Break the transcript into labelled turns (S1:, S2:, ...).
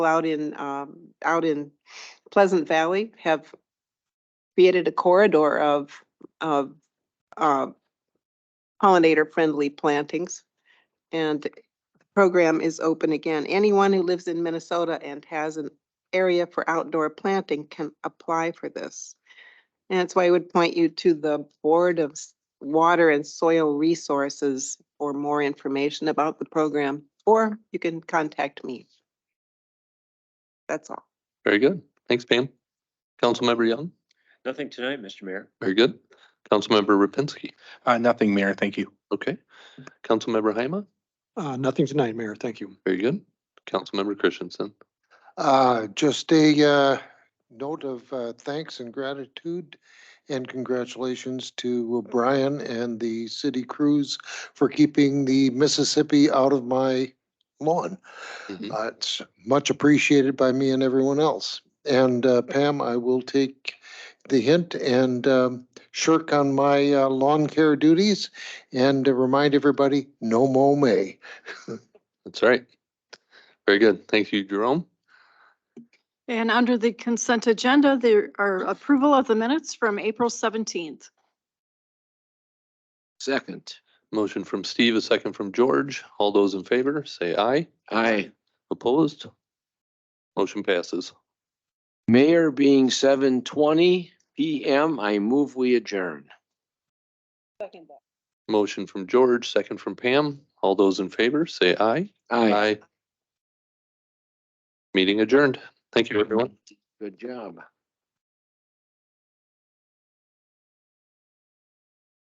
S1: out in, um, out in Pleasant Valley have created a corridor of, of, uh, pollinator-friendly plantings. And the program is open again. Anyone who lives in Minnesota and has an area for outdoor planting can apply for this. And that's why I would point you to the Board of S- Water and Soil Resources for more information about the program, or you can contact me. That's all.
S2: Very good. Thanks, Pam. Councilmember Young,
S3: Nothing tonight, Mr. Mayor.
S2: very good. Councilmember Rapinski,
S4: Uh, nothing, Mayor. Thank you.
S2: okay. Councilmember Haima,
S5: Uh, nothing tonight, Mayor. Thank you.
S2: very good. Councilmember Christensen,
S6: Uh, Just a uh, note of uh, thanks and gratitude and congratulations to Brian and the city crews for keeping the Mississippi out of my lawn.
S2: Mhm.
S6: Uh, It's much appreciated by me and everyone else. And uh, Pam, I will take the hint and um, shirk on my uh, lawn care duties and uh, remind everybody, no mow May.
S2: that's right. Very good. Thank you, Jerome.
S7: And under the consent agenda, there are approval of the minutes from April 17th.
S3: Second.
S2: Motion from Steve, a second from George. All those in favor, say aye.
S3: Aye.
S2: Opposed? Motion passes.
S3: Mayor being seven twenty PM, I move we adjourn.
S2: Motion from George, second from Pam. All those in favor, say aye. Meeting adjourned. Thank you, everyone.
S3: Good job.